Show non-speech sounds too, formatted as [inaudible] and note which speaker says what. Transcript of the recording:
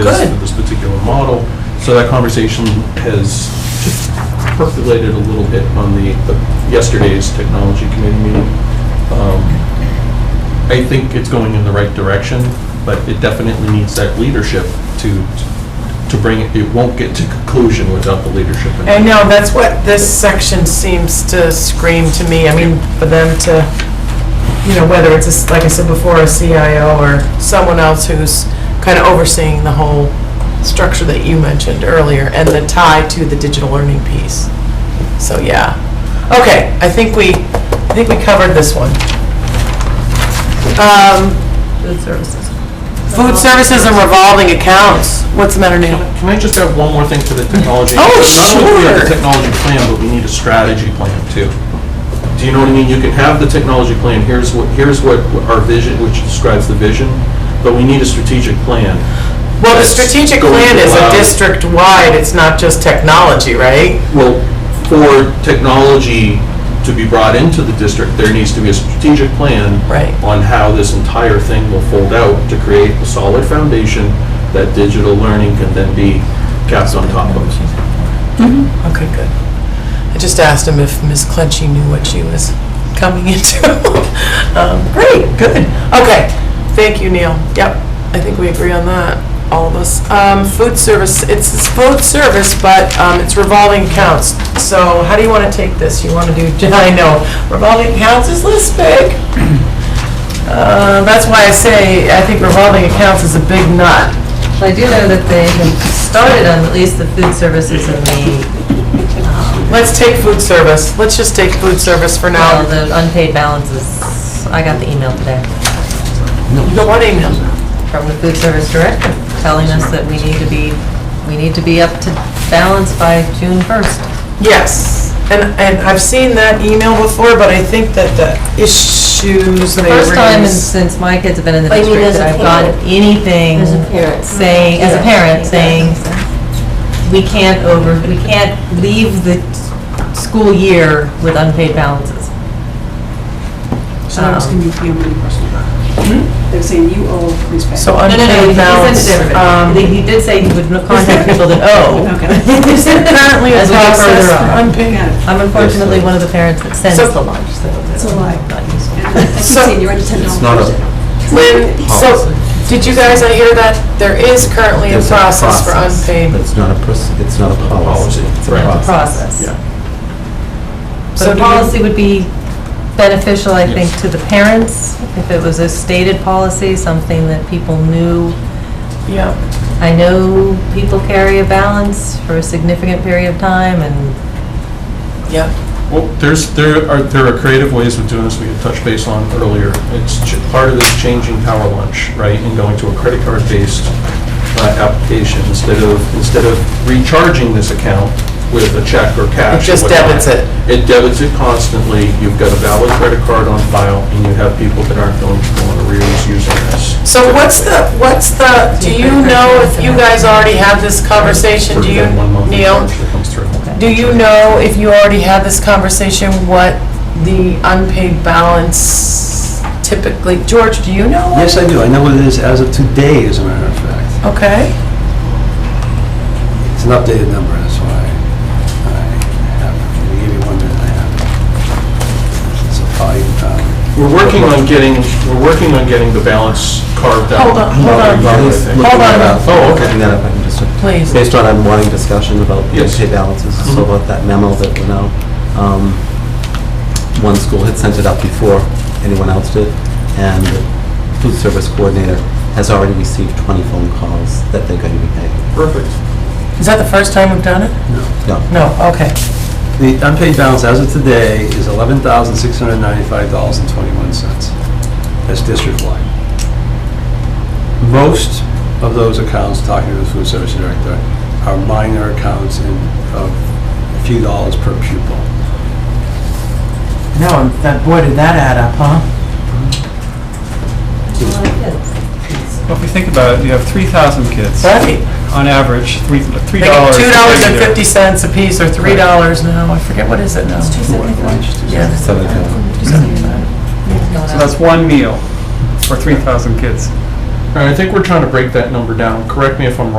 Speaker 1: is
Speaker 2: Good.
Speaker 1: for this particular model. So that conversation has just percolated a little bit on the, the- yesterday's technology committee meeting. Um, I think it's going in the right direction, but it definitely needs that leadership to, to bring it, it won't get to conclusion without the leadership. in
Speaker 2: I
Speaker 1: it.
Speaker 2: know, that's what this section seems to scream to me. I mean, for them to, you know, whether it's, a s- like I said before, a CIO or someone else who's kind of overseeing the whole structure that you mentioned earlier and the tie to the digital learning piece. So, yeah. Okay, I think we, I think we covered this one. Um,
Speaker 3: Food services.
Speaker 2: Food services and revolving accounts. What's the matter, Neil?
Speaker 1: Can I just add one more thing to the technology?
Speaker 2: Oh,
Speaker 1: Not only do we have
Speaker 2: sure.
Speaker 1: the technology plan, but we need a strategy plan too. Do you know what I mean? You can have the technology plan, here's what, here's what our vision, which describes the vision, but we need a strategic plan.
Speaker 2: Well, the
Speaker 1: that's
Speaker 2: strategic
Speaker 1: going
Speaker 2: plan
Speaker 1: to
Speaker 2: is a
Speaker 1: allow-
Speaker 2: district-wide, it's not just technology, right?
Speaker 1: Well, for technology to be brought into the district, there needs to be a strategic plan
Speaker 2: Right.
Speaker 1: on how this entire thing will fold out to create a solid foundation that digital learning can then be capped on top of.
Speaker 2: Okay, good. I just asked him if Ms. Clenchey knew what she was coming [laughs] into. Um, Great, good. Okay, thank you, Neil. Yep, I think we agree on that, all of us. Um, Food service, it's it's food service, but um, it's revolving accounts. So how do you want to take this? You want to do, [laughs] I know, revolving accounts is this big. Uh, That's why I say, I think revolving accounts is a big nut.
Speaker 3: Well, I do know that they have started on at least the food services and the,
Speaker 2: Let's take food service. Let's just take food service for now.
Speaker 3: well, the unpaid balances. I got the email today
Speaker 2: You got one email.
Speaker 3: from the food service director telling us that we need to be, we need to be up to balance by June 1st.
Speaker 2: Yes, and, and I've seen that email before, but I think that the issues they
Speaker 3: First time in-
Speaker 2: raised.
Speaker 3: since my kids have been in the
Speaker 4: But you mean
Speaker 3: district
Speaker 4: as a
Speaker 3: that I've gotten
Speaker 4: parent.
Speaker 3: anything
Speaker 4: As a parent.
Speaker 3: saying, as a
Speaker 4: Yeah.
Speaker 3: parent,
Speaker 4: Yeah.
Speaker 3: saying, we can't over, we can't leave the school year with unpaid balances.
Speaker 5: So that was
Speaker 3: Um,
Speaker 5: going to be the only question.
Speaker 6: Hmm?
Speaker 5: They're saying you owe these back.
Speaker 2: So
Speaker 3: No, no, no,
Speaker 2: unpaid
Speaker 3: he sent it
Speaker 2: balance.
Speaker 3: to
Speaker 2: um,
Speaker 3: everybody.
Speaker 2: [laughs]
Speaker 3: He he did say he would contact people that owe.
Speaker 5: Okay.
Speaker 2: Is there currently a
Speaker 3: As we go
Speaker 2: process
Speaker 3: further
Speaker 2: for
Speaker 3: on.
Speaker 2: unpaid?
Speaker 5: Got it.
Speaker 3: I'm unfortunately one of the parents that sends
Speaker 2: So-
Speaker 3: the lunch, so it's
Speaker 5: a lie.
Speaker 3: not useful.
Speaker 5: And I
Speaker 6: [laughs]
Speaker 5: keep
Speaker 2: So-
Speaker 5: saying you're under ten dollars.
Speaker 1: It's not a
Speaker 2: Lynn, so,
Speaker 6: Policy.
Speaker 2: did you guys I hear that? There is currently a
Speaker 6: There's a
Speaker 2: process for
Speaker 6: process.
Speaker 2: unpaid.
Speaker 6: It's not a, proc- it's not a policy.
Speaker 1: Policy,
Speaker 6: It's a
Speaker 1: right.
Speaker 3: It's a
Speaker 6: process.
Speaker 3: process.
Speaker 1: Yeah.
Speaker 2: So
Speaker 3: But a
Speaker 2: do you-
Speaker 3: policy would be beneficial, I think,
Speaker 1: Yes.
Speaker 3: to the parents, if it was a stated policy, something that people knew.
Speaker 2: Yeah.
Speaker 3: I know people carry a balance for a significant period of time, and
Speaker 2: Yeah.
Speaker 1: Well, there's, there are, there are creative ways of doing this we had touched base on earlier. It's ch- part of this changing power lunch, right, and going to a credit card-based uh, application instead of, instead of recharging this account with a check or cash.
Speaker 2: It just
Speaker 1: or whatnot.
Speaker 2: debits it.
Speaker 1: It debits it constantly. You've got a valid credit card on file, and you have people that aren't going to go on arrears using this.
Speaker 2: So what's the, what's the, do you know if you guys already had this conversation? Do you,
Speaker 1: Sort of that one monthly
Speaker 2: Neil?
Speaker 1: charge that comes through.
Speaker 2: Do you know if you already had this conversation, what the unpaid balance typically, George, do you know?
Speaker 6: Yes, I do. I know what it is as of today, as a matter of fact.
Speaker 2: Okay,
Speaker 6: It's an updated number, that's why I have, it. give you one minute, I have. it. So probably, um,
Speaker 1: We're working on getting, we're working on getting the balance carved out.
Speaker 2: Hold on, hold
Speaker 1: Another
Speaker 2: on.
Speaker 1: valid
Speaker 6: Liz,
Speaker 1: thing.
Speaker 6: looking
Speaker 2: Hold on.
Speaker 6: that up.
Speaker 1: Oh, okay.
Speaker 6: Looking that up, I can just,
Speaker 2: please.
Speaker 6: based on ongoing discussion about
Speaker 1: Yes.
Speaker 6: unpaid balances,
Speaker 2: Mm-hmm.
Speaker 6: so
Speaker 1: Mhm.
Speaker 6: about that memo that went out, um, one school had sent it out before anyone else did, and the food service coordinator has already received 20 phone calls that they're going to be paying.
Speaker 1: Perfect.
Speaker 2: Is that the first time we've done it?
Speaker 6: No.
Speaker 2: No, okay.
Speaker 6: The unpaid balance as of today is eleven thousand six hundred ninety-five dollars and twenty-one cents. That's district-wide. Most of those accounts, talking to the food service director, are minor accounts in, of a few dollars per pupil.
Speaker 2: No, that, boy, did that add up, huh?
Speaker 7: Well, if you think about it, you have 3,000 kids,
Speaker 2: Right.
Speaker 7: on average, three three
Speaker 2: They get
Speaker 7: dollars.
Speaker 2: two dollars and fifty cents a piece, or three dollars now, I forget, what is it now? Yeah.
Speaker 7: So that's one meal for 3,000 kids.
Speaker 1: And I think we're trying to break that number down. Correct me if I'm wrong.